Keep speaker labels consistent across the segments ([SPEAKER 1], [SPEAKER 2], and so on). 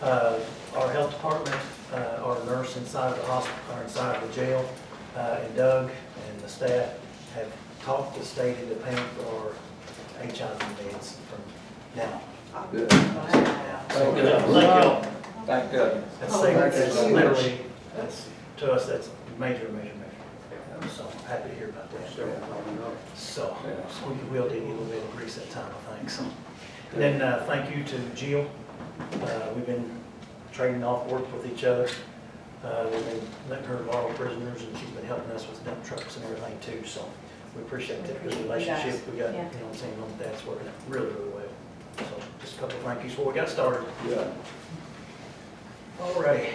[SPEAKER 1] uh, our health department, uh, our nurse inside of the hospital, or inside of the jail, uh, and Doug and the staff have talked the state into paying for our HIV meds from now.
[SPEAKER 2] Good.
[SPEAKER 1] So,
[SPEAKER 2] Thank
[SPEAKER 1] Thank
[SPEAKER 2] you.
[SPEAKER 1] y'all.
[SPEAKER 2] Thank God.
[SPEAKER 1] That's, like- that's literally, that's, to us, that's major, major, major. So I'm happy to hear about that. So, so we will need a little bit of grease that time, I think, so. And Then, uh, thank you to Jill. Uh, we've been trading off work with each other. Uh, we've been letting her borrow prisoners and she's been helping us with dump trucks and everything too, so we appreciate that good relationship. We got, you know, what I'm saying, like that's working out really, really well. So just a couple of thank yous before we got started.
[SPEAKER 2] Yeah.
[SPEAKER 1] All right.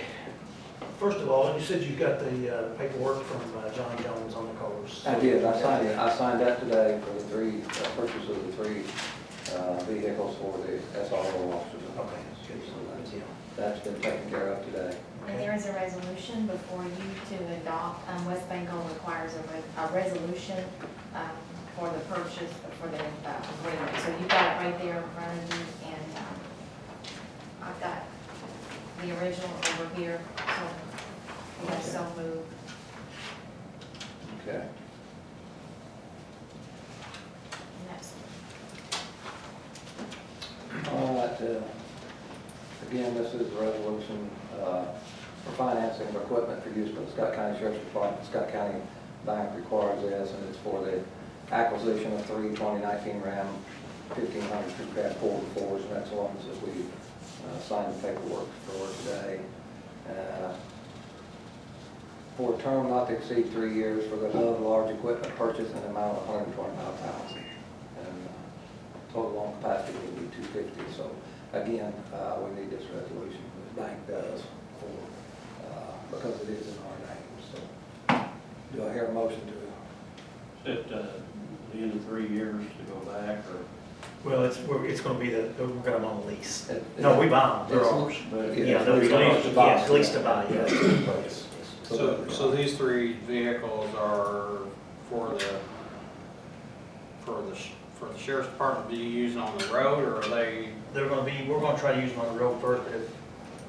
[SPEAKER 1] First of all, you said you got the uh, paperwork from uh, John Jones on the cars.
[SPEAKER 2] I did, I signed, I signed that today for the three, uh, purchase of the three uh, vehicles for the SRO officers.
[SPEAKER 1] Okay, good, so that's, yeah.
[SPEAKER 2] That's been taken care of today.
[SPEAKER 3] And there is a resolution before you to adopt, um, West Bengal requires a, re- a resolution, um, for the purchase, for the, uh, agreement. So you've got it right there in front of you, and, um, I've got the original over here, so, we have so moved.
[SPEAKER 2] Okay.
[SPEAKER 3] And that's-
[SPEAKER 2] All right, uh, again, this is a resolution uh, for financing of equipment for use by the Scott County Sheriff's Department. Scott County Bank requires this, and it's for the acquisition of three 2019 Ram 1500 crew cab four and fours, and that's the ones that we uh, signed the paperwork for today. Uh, For a term not to exceed three years for the above large equipment purchase in the amount of 125000 And uh, total on capacity will be two fifty, so again, uh, we need this resolution, the bank does, for, uh, because it is in our name, so. Do I hear a motion to,
[SPEAKER 4] At uh, the end of three years to go back, or,
[SPEAKER 1] Well, it's, we're, it's gonna be the, we're gonna on the lease.
[SPEAKER 2] It-
[SPEAKER 1] No, we buy them, they're
[SPEAKER 2] It's-
[SPEAKER 1] ours.
[SPEAKER 4] but
[SPEAKER 2] Yeah,
[SPEAKER 1] Yeah, they'll be
[SPEAKER 2] it's leased
[SPEAKER 1] leased,
[SPEAKER 2] to buy.
[SPEAKER 1] yeah, it's leased to buy, yeah.
[SPEAKER 5] So, so these three vehicles are for the, for the, sh- for the sheriff's department to be using on the road, or are they,
[SPEAKER 1] They're gonna be, we're gonna try to use them on the road first, but if,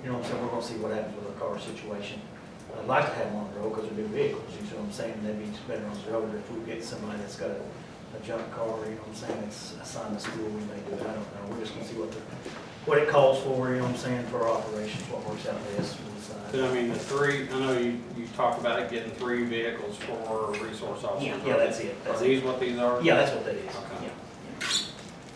[SPEAKER 1] you know what I'm saying, we're gonna see what happens with the car situation. I'd like to have them on the road, cause they're new vehicles, you see what I'm saying, they'd be better on the road, if we get somebody that's got a, a junk car, you know what I'm saying, it's assigned to school, we may do it, I don't know, we're just gonna see what the, what it calls for, you know what I'm saying, for our operations, what works out best, we'll decide.
[SPEAKER 5] I mean, the three, I know you, you talked about it getting three vehicles for resource
[SPEAKER 1] Yeah,
[SPEAKER 5] officers.
[SPEAKER 1] yeah, that's it,
[SPEAKER 5] Are
[SPEAKER 1] that's it.
[SPEAKER 5] these what these are?
[SPEAKER 1] Yeah, that's what that is,
[SPEAKER 5] Okay.
[SPEAKER 1] yeah.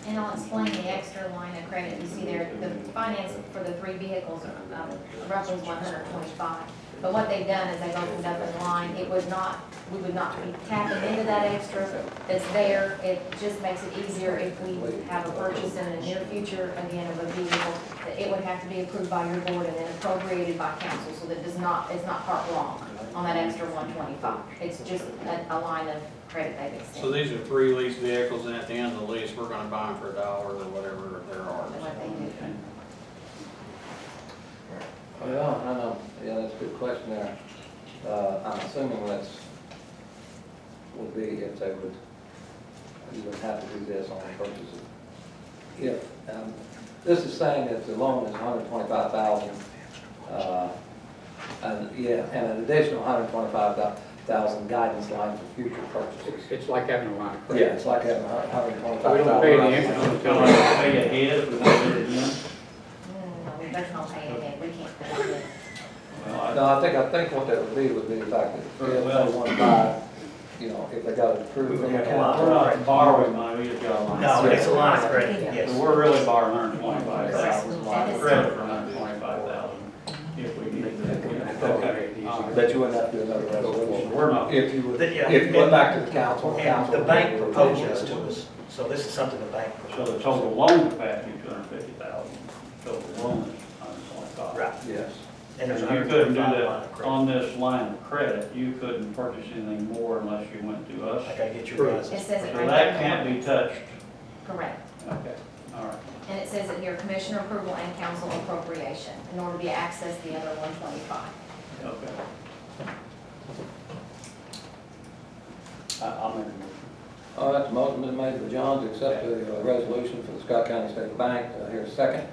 [SPEAKER 3] And I'll explain the extra line of credit, you see there, the finance for the three vehicles, um, roughly one hundred twenty-five. But what they've done is they've opened up a line, it would not, we would not be tapping into that extra that's there. It just makes it easier if we have a purchase in the near future, again, of a vehicle, that it would have to be approved by your board and then appropriated by council, so that does not, it's not part wrong on that extra one twenty-five. It's just a, a line of credit they've
[SPEAKER 5] So
[SPEAKER 3] extended,
[SPEAKER 5] these are three leased vehicles, and at the end of the lease, we're gonna buy them for a dollar or whatever they're
[SPEAKER 3] and
[SPEAKER 5] ours.
[SPEAKER 3] what they do.
[SPEAKER 2] Well, I know, yeah, that's a good question there. Uh, I'm assuming that's, would be if they would, you would have to do this on the purchase of, if, um, this is saying that the loan is hundred twenty-five thousand, uh, and, yeah, and an additional hundred twenty-five thousand guidance line for future purchases.
[SPEAKER 6] It's like having a line of
[SPEAKER 2] Yeah,
[SPEAKER 6] credit.
[SPEAKER 2] it's like having a hundred twenty-five
[SPEAKER 6] We
[SPEAKER 2] thousand.
[SPEAKER 6] don't pay any interest
[SPEAKER 4] I'm
[SPEAKER 6] until,
[SPEAKER 4] telling you, pay ahead if we don't do it again.
[SPEAKER 3] Mm, we better not pay it, we can't. pay it.
[SPEAKER 4] Well, I-
[SPEAKER 2] No, I think, I think what that would be would be the fact that if they want to buy, you know, if they got it approved from the
[SPEAKER 4] We're
[SPEAKER 2] county.
[SPEAKER 4] not borrowing money, we just got a line.
[SPEAKER 1] No, it's a line of credit, yes.
[SPEAKER 4] So we're really borrowing hundred twenty-five thousand,
[SPEAKER 3] That is-
[SPEAKER 4] credit for hundred twenty-five thousand, if we need to. uh,
[SPEAKER 6] Okay.
[SPEAKER 4] All right.
[SPEAKER 2] That you wouldn't have to do another resolution.
[SPEAKER 4] We're not,
[SPEAKER 2] If you would,
[SPEAKER 1] Then, yeah.
[SPEAKER 2] if you went back to the council,
[SPEAKER 1] And
[SPEAKER 2] council.
[SPEAKER 1] um, the bank
[SPEAKER 2] would-
[SPEAKER 1] proposed this to us, so this is something the bank
[SPEAKER 4] so
[SPEAKER 1] proposed.
[SPEAKER 4] the total loan capacity is two hundred fifty thousand, total loan is hundred twenty-five.
[SPEAKER 1] Right,
[SPEAKER 2] Yes.
[SPEAKER 1] and
[SPEAKER 4] And
[SPEAKER 1] there's
[SPEAKER 4] you
[SPEAKER 1] a hundred
[SPEAKER 4] couldn't do
[SPEAKER 1] twenty-five line of
[SPEAKER 4] that
[SPEAKER 1] credit.
[SPEAKER 4] on this line of credit, you couldn't purchase anything more unless you went to us.
[SPEAKER 1] I gotta get your guys'
[SPEAKER 3] It says it
[SPEAKER 4] So
[SPEAKER 3] right
[SPEAKER 4] that
[SPEAKER 3] there.
[SPEAKER 4] can't be touched.
[SPEAKER 3] Correct.
[SPEAKER 4] Okay, all right.
[SPEAKER 3] And it says it here, commissioner approval and council appropriation, in order to be access the other one twenty-five.
[SPEAKER 4] Okay. I- I'll make a motion.
[SPEAKER 2] All right, the motion been made by John to accept the uh, resolution for the Scott County State Bank. Do I hear a second? Uh,